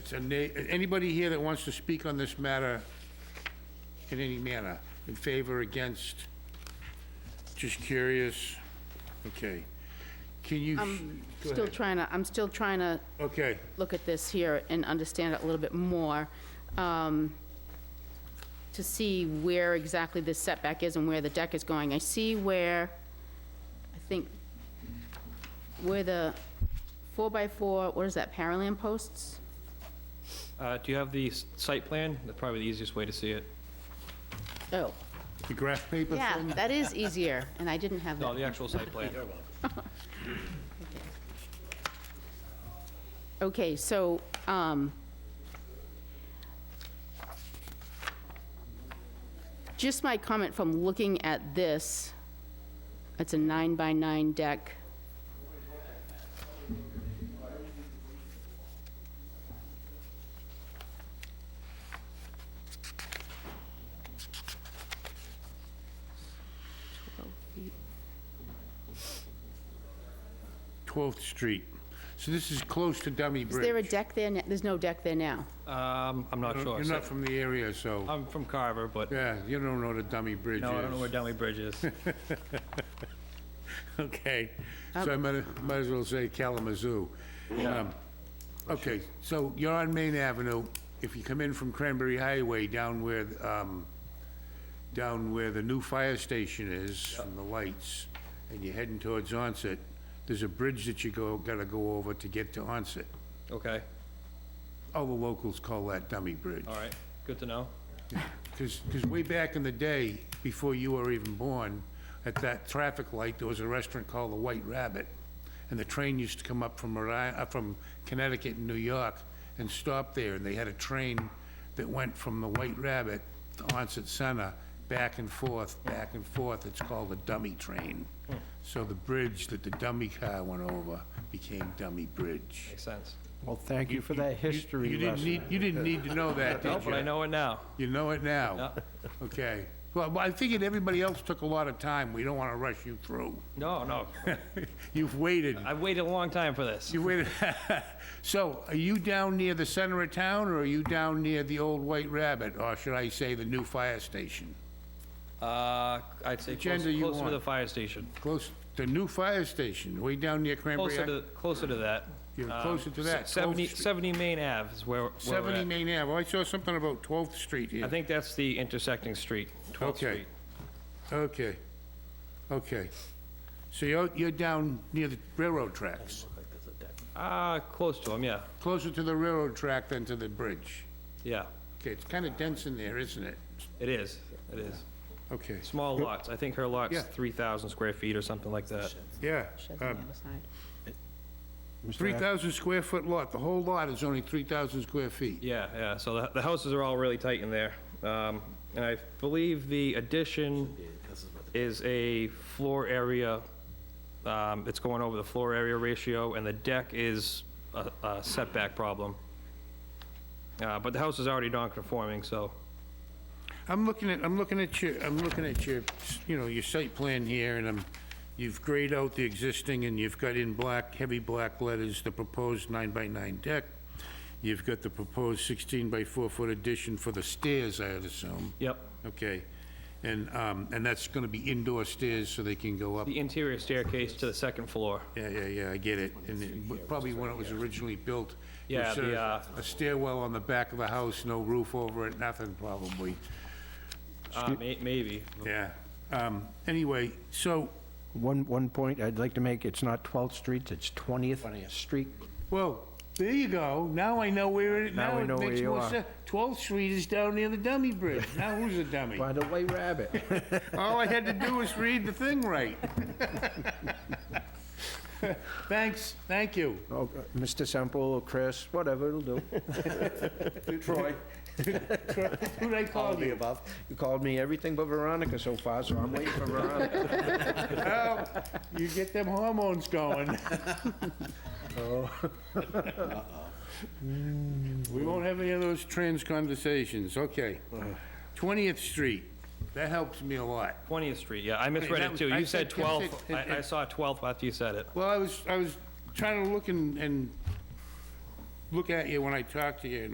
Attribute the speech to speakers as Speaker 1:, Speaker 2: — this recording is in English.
Speaker 1: It's a na, anybody here that wants to speak on this matter in any manner, in favor, against? Just curious? Okay. Can you? go
Speaker 2: Still
Speaker 1: ahead.
Speaker 2: trying to, I'm still trying to
Speaker 1: Okay,
Speaker 2: look at this here and understand it a little bit more, um, to see where exactly this setback is and where the deck is going. I see where, I think, where the four-by-four, what is that, paralel posts?
Speaker 3: Uh, Do you have the s- site plan? That's probably the easiest way to see it.
Speaker 2: Oh,
Speaker 1: the graph paper
Speaker 2: yeah,
Speaker 1: thing?
Speaker 2: that is easier, and I didn't have
Speaker 3: No, the
Speaker 2: that.
Speaker 3: actual site plan.
Speaker 2: Okay, so, um, just my comment from looking at this, it's a nine by nine deck. Twelve feet.
Speaker 1: 12th Street. So this is close to Dummy
Speaker 2: Is
Speaker 1: Bridge.
Speaker 2: there a deck there? na- There's no deck there now.
Speaker 3: Um, I'm not sure.
Speaker 1: You're
Speaker 3: so-
Speaker 1: not from the area, so,
Speaker 3: I'm from Carver, but
Speaker 1: yeah, you don't know what a Dummy Bridge is.
Speaker 3: no, I don't know where Denley Bridge is.
Speaker 1: Okay, so I might, might as well say Kalamazoo. Um, Okay, so you're on Main Avenue. If you come in from Cranberry Highway down where, um, down where the new fire station is from the lights, and you're heading towards Onset, there's a bridge that you go, gotta go over to get to Onset.
Speaker 3: Okay,
Speaker 1: All the locals call that Dummy Bridge.
Speaker 3: all right, good to know.
Speaker 1: Because, way back in the day, before you were even born, at that traffic light, there was a restaurant called the White Rabbit. And the train used to come up from Rhode Island, uh, from Connecticut and New York and stop there. And they had a train that went from the White Rabbit to Onset Center, back and forth, back and forth. It's called a dummy train. So the bridge that the dummy car went over became Dummy Bridge.
Speaker 3: Makes sense.
Speaker 4: Well, thank you for that
Speaker 1: You-
Speaker 4: history
Speaker 1: You didn't
Speaker 4: lesson.
Speaker 1: need, you didn't need to know that, did you?
Speaker 3: No, but I know it now.
Speaker 1: You know it now? Okay. Well, well, I figured everybody else took a lot of time. We don't want to rush you through.
Speaker 3: No, no,
Speaker 1: You've waited.
Speaker 3: I've waited a long time for this.
Speaker 1: You waited. So are you down near the center of town or are you down near the old White Rabbit? Or should I say the new fire station?
Speaker 3: Uh, I'd say
Speaker 1: Which end
Speaker 3: closer
Speaker 1: do you
Speaker 3: closer to
Speaker 1: want?
Speaker 3: the fire station,
Speaker 1: Close, the new fire station, way down near Cranberry.
Speaker 3: closer
Speaker 1: Ave-
Speaker 3: to, closer to that.
Speaker 1: You're
Speaker 3: Um,
Speaker 1: closer to
Speaker 3: s-
Speaker 1: that,
Speaker 3: 70
Speaker 1: 12th Street.
Speaker 3: 70 Main Ave is where where we're
Speaker 1: 70
Speaker 3: at.
Speaker 1: Main Ave. Oh, I saw something about 12th Street here.
Speaker 3: I think that's the intersecting street, 12th
Speaker 1: Okay.
Speaker 3: Street.
Speaker 1: Okay. Okay. So you're, you're down near the railroad tracks,
Speaker 3: Ah, close to them, yeah,
Speaker 1: closer to the railroad track than to the bridge.
Speaker 3: yeah.
Speaker 1: Okay, it's kind of dense in there, isn't it?
Speaker 3: It is, it is.
Speaker 1: Okay,
Speaker 3: Small lots. I think her lot's
Speaker 1: Yeah.
Speaker 3: 3,000 square feet or something like that.
Speaker 1: yeah. uh,
Speaker 2: Sheds on the other side.
Speaker 4: Mr.
Speaker 1: Three
Speaker 4: Ack-
Speaker 1: thousand square foot lot, the whole lot is only three thousand square feet.
Speaker 3: Yeah, yeah, so the, the houses are all really tight in there. Um, And I believe the addition is a floor area, um, it's going over the floor area ratio, and the deck is a a setback problem. Uh, But the house is already non-conforming, so,
Speaker 1: I'm looking at, I'm looking at your, I'm looking at your, you know, your site plan here, and I'm, you've grayed out the existing, and you've got in black, heavy black letters, the proposed nine by nine deck. You've got the proposed sixteen by four foot addition for the stairs, I'd assume.
Speaker 3: yep.
Speaker 1: Okay, and, um, and that's gonna be indoor stairs, so they can go up
Speaker 3: The interior staircase to the second floor.
Speaker 1: Yeah, yeah, yeah, I get it. And it- but probably when it was originally built. it was
Speaker 3: Yeah,
Speaker 1: sort
Speaker 3: the,
Speaker 4: uh,
Speaker 1: of A stairwell on the back of the house, no roof over it, nothing probably,
Speaker 3: Uh, may- Maybe,
Speaker 1: yeah. Um, Anyway, so,
Speaker 4: One, one point I'd like to make, it's not 12th Street, it's 20th Street.
Speaker 1: well, there you go, now I know where it,
Speaker 4: Now
Speaker 1: now
Speaker 4: we
Speaker 1: it
Speaker 4: know where
Speaker 1: makes
Speaker 4: you
Speaker 1: more
Speaker 4: are.
Speaker 1: sense. 12th Street is down near the dummy bridge, now who's a dummy?
Speaker 4: By the way, rabbit.
Speaker 1: All I had to do was read the thing right. Thanks, thank you.
Speaker 4: Oh, Mr. Semple, Chris, whatever, it'll do. Troy.
Speaker 1: Who'd I
Speaker 4: All
Speaker 1: call
Speaker 4: the
Speaker 1: you?
Speaker 4: above. You called me everything but Veronica so far, so I'm waiting for Veronica.
Speaker 1: Oh, You get them hormones going. We won't have any of those trans conversations, okay. 20th Street, that helps me a lot.
Speaker 3: 20th Street, yeah, I misread
Speaker 1: that
Speaker 3: it
Speaker 1: was-
Speaker 3: too.
Speaker 1: I
Speaker 3: You
Speaker 1: said-
Speaker 3: said
Speaker 1: I
Speaker 3: 12th,
Speaker 1: said-
Speaker 3: I I saw 12th after you said it.
Speaker 1: Well, I was, I was trying to look and, and look at you when I talk to you, and